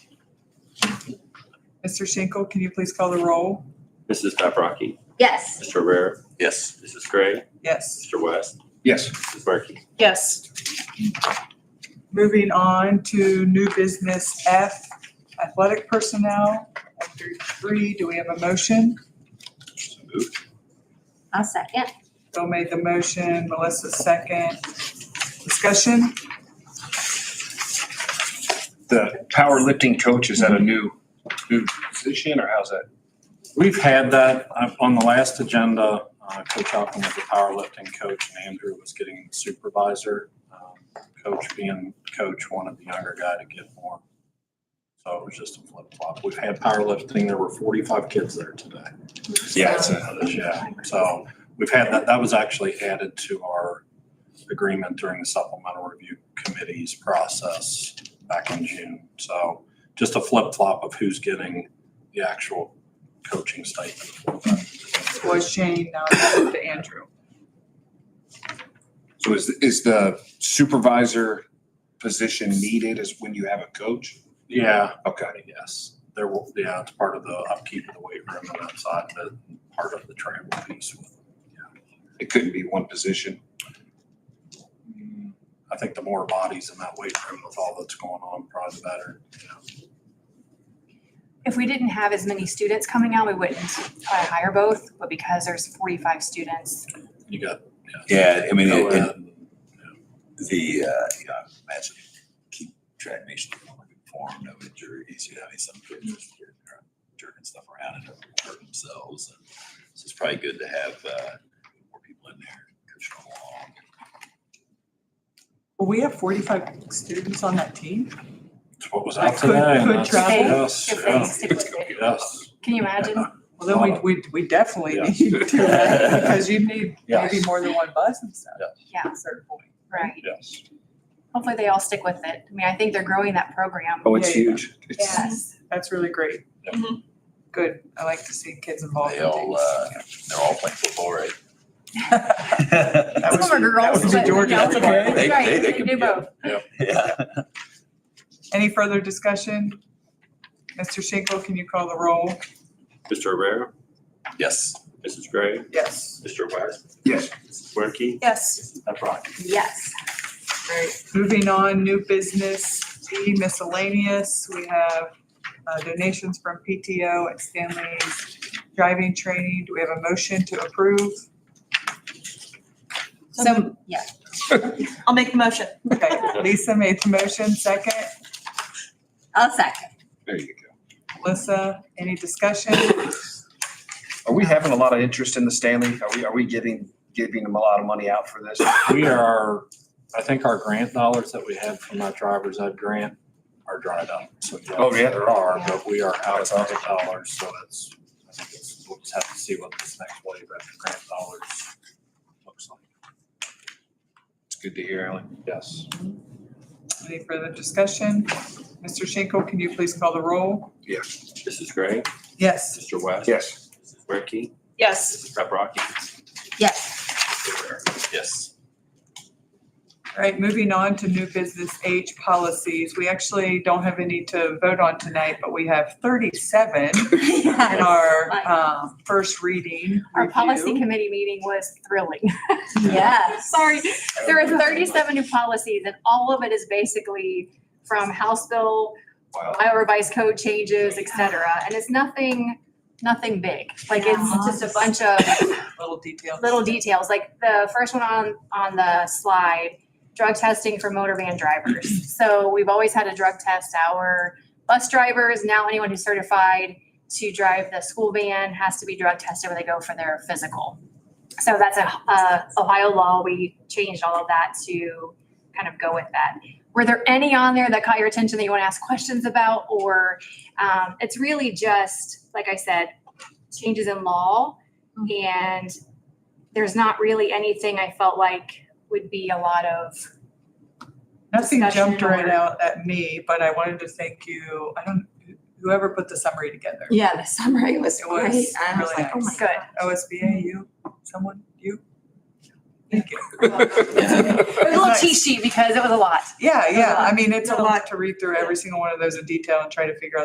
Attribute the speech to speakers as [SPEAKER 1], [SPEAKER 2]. [SPEAKER 1] Mr. Schenkel, can you please call the roll?
[SPEAKER 2] Mrs. Paprocki,
[SPEAKER 3] Yes.
[SPEAKER 2] Mr. Rare,
[SPEAKER 4] Yes.
[SPEAKER 2] Mrs. Gray,
[SPEAKER 1] Yes.
[SPEAKER 2] Mr. West,
[SPEAKER 4] Yes.
[SPEAKER 2] Mrs. Markey.
[SPEAKER 5] Yes.
[SPEAKER 1] Moving on to new business F, athletic personnel. Under three, do we have a motion?
[SPEAKER 4] So moved.
[SPEAKER 3] I'll second.
[SPEAKER 1] Bill made the motion, Melissa second. Discussion?
[SPEAKER 4] The powerlifting coach, is that a new, new position or how's that?
[SPEAKER 6] We've had that uh, on the last agenda. uh, Coach Alkin was the powerlifting coach and Andrew was getting the supervisor. Um, Coach being coach wanted the younger guy to get more. So it was just a flip flop. We've had powerlifting. There were 45 kids there today.
[SPEAKER 4] Yeah, it's a-
[SPEAKER 6] Yeah, so we've had that. That was actually added to our agreement during the supplemental review committee's process back in June. So just a flip flop of who's getting the actual coaching stipend.
[SPEAKER 1] Was Shane, now moved to Andrew.
[SPEAKER 4] So is, is the supervisor position needed is when you have a coach?
[SPEAKER 6] Yeah,
[SPEAKER 4] Okay.
[SPEAKER 6] yes, there will, yeah, it's part of the upkeep of the weight room and that side, but part of the travel piece with
[SPEAKER 4] It couldn't be one position.
[SPEAKER 6] Mm, I think the more bodies in that weight room with all that's going on, probably the better. you know.
[SPEAKER 7] If we didn't have as many students coming out, we wouldn't probably hire both, but because there's forty-five students,
[SPEAKER 6] You got.
[SPEAKER 8] Yeah, I mean,
[SPEAKER 6] Oh,
[SPEAKER 8] it- it-
[SPEAKER 6] co-ed.
[SPEAKER 8] the, uh, you know, I imagine keep track nation informed, no injuries, you know, I mean, some kids are jerking around- jerking stuff around and hurt themselves. and So it's probably good to have, uh, more people in there, coach them along.
[SPEAKER 1] Well, we have forty-five students on that team.
[SPEAKER 6] It's what was
[SPEAKER 1] I
[SPEAKER 6] out
[SPEAKER 1] could-
[SPEAKER 6] today. and
[SPEAKER 1] could
[SPEAKER 6] that's-
[SPEAKER 1] travel.
[SPEAKER 6] Yes,
[SPEAKER 7] if they
[SPEAKER 6] yeah.
[SPEAKER 7] stick with it.
[SPEAKER 6] Yes.
[SPEAKER 7] Can you imagine?
[SPEAKER 1] Well, then we, we, we definitely need to, do that because you need maybe
[SPEAKER 6] Yes.
[SPEAKER 1] more than one bus and stuff.
[SPEAKER 7] Yeah,
[SPEAKER 1] at a certain point.
[SPEAKER 7] right.
[SPEAKER 6] Yes.
[SPEAKER 7] Hopefully they all stick with it. I mean, I think they're growing that program.
[SPEAKER 4] Oh,
[SPEAKER 1] it's
[SPEAKER 4] it's
[SPEAKER 1] Yeah, yeah.
[SPEAKER 4] huge.
[SPEAKER 7] Yes.
[SPEAKER 1] That's really great.
[SPEAKER 6] Yep.
[SPEAKER 5] Mhm.
[SPEAKER 1] Good. I like to see kids involved
[SPEAKER 8] Mm-hmm. They
[SPEAKER 1] in
[SPEAKER 8] all,
[SPEAKER 1] things.
[SPEAKER 8] uh, they're all playing football, right?
[SPEAKER 1] That was
[SPEAKER 7] Some are
[SPEAKER 1] your- that
[SPEAKER 7] girls,
[SPEAKER 1] was your
[SPEAKER 7] but-
[SPEAKER 1] Georgia
[SPEAKER 7] yeah, it's
[SPEAKER 1] football.
[SPEAKER 7] okay.
[SPEAKER 8] They-
[SPEAKER 7] Right,
[SPEAKER 8] they- they
[SPEAKER 7] they
[SPEAKER 8] can
[SPEAKER 7] do
[SPEAKER 8] be-
[SPEAKER 7] both.
[SPEAKER 8] Yeah.
[SPEAKER 1] Any further discussion? Mr. Schenkel, can you call the roll?
[SPEAKER 2] Mr. Rare,
[SPEAKER 8] Yes.
[SPEAKER 2] Mrs. Gray,
[SPEAKER 1] Yes.
[SPEAKER 2] Mr. West,
[SPEAKER 4] Yes.
[SPEAKER 2] Mrs. Markey,
[SPEAKER 5] Yes.
[SPEAKER 2] Paprocki.
[SPEAKER 3] Yes.
[SPEAKER 1] Great. Moving on, new business, D miscellaneous. We have uh, donations from PTO and Stanley's driving training. Do we have a motion to approve?
[SPEAKER 5] So
[SPEAKER 3] Yeah.
[SPEAKER 5] I'll make the motion.
[SPEAKER 1] Okay, Lisa made the motion, second.
[SPEAKER 3] I'll second.
[SPEAKER 4] There you go.
[SPEAKER 1] Melissa, any discussion?
[SPEAKER 9] Are we having a lot of interest in the Stanley? Are we, are we giving, giving them a lot of money out for this?
[SPEAKER 6] We are, I think our grant dollars that we had from our driver's ed grant are dried up. So yes,
[SPEAKER 9] Oh, yeah.
[SPEAKER 6] There are, but we are out of grant dollars, so it's, I think it's, we'll just have to see what this next wave of grant dollars looks like.
[SPEAKER 4] It's good to hear, Alan.
[SPEAKER 6] Yes.
[SPEAKER 1] Any further discussion? Mr. Schenkel, can you please call the roll?
[SPEAKER 2] Mrs. Gray,
[SPEAKER 1] Yes.
[SPEAKER 2] Mr. West.
[SPEAKER 4] Yes.
[SPEAKER 2] Mrs. Markey,
[SPEAKER 5] Yes.
[SPEAKER 2] Mrs. Paprocki,
[SPEAKER 3] Yes.
[SPEAKER 2] Mr. Rare.
[SPEAKER 8] Yes.
[SPEAKER 1] All right, moving on to new business age policies. We actually don't have any to vote on tonight, but we have 37 in
[SPEAKER 3] Yes.
[SPEAKER 1] our um, first reading.
[SPEAKER 7] Our policy
[SPEAKER 1] review.
[SPEAKER 7] committee meeting was thrilling.
[SPEAKER 3] Yes.
[SPEAKER 7] Sorry, there are thirty-seven new policies and all of it is basically from House Bill,
[SPEAKER 8] Wow.
[SPEAKER 7] Iowa Revised Code changes, et cetera. And it's nothing, nothing big. Like it's just a bunch of
[SPEAKER 1] Little detail.
[SPEAKER 7] little details, like the first one on, on the slide, drug testing for motor van drivers. So we've always had a drug test. Our bus drivers, now anyone who's certified to drive the school van has to be drug tested when they go for their physical. So that's a, uh, Ohio law. We changed all of that to kind of go with that. Were there any on there that caught your attention that you want to ask questions about? Or, um, it's really just, like I said, changes in law. And there's not really anything I felt like would be a lot of,
[SPEAKER 1] Nothing
[SPEAKER 7] discussion
[SPEAKER 1] jumped right
[SPEAKER 7] or-
[SPEAKER 1] out at me, but I wanted to thank you. I don't, whoever put the summary together.
[SPEAKER 3] Yeah, the summary was
[SPEAKER 1] It was
[SPEAKER 3] great. I was
[SPEAKER 1] really
[SPEAKER 3] like, oh my
[SPEAKER 1] nice.
[SPEAKER 7] Good.
[SPEAKER 3] God.
[SPEAKER 1] OSBA, you, someone, you? Thank you.
[SPEAKER 7] it was a little
[SPEAKER 1] Nice.
[SPEAKER 7] cheat sheet because it was a lot.
[SPEAKER 1] Yeah, yeah. I mean, it's a
[SPEAKER 7] No.
[SPEAKER 1] lot to read through every single one of those in detail and try to figure out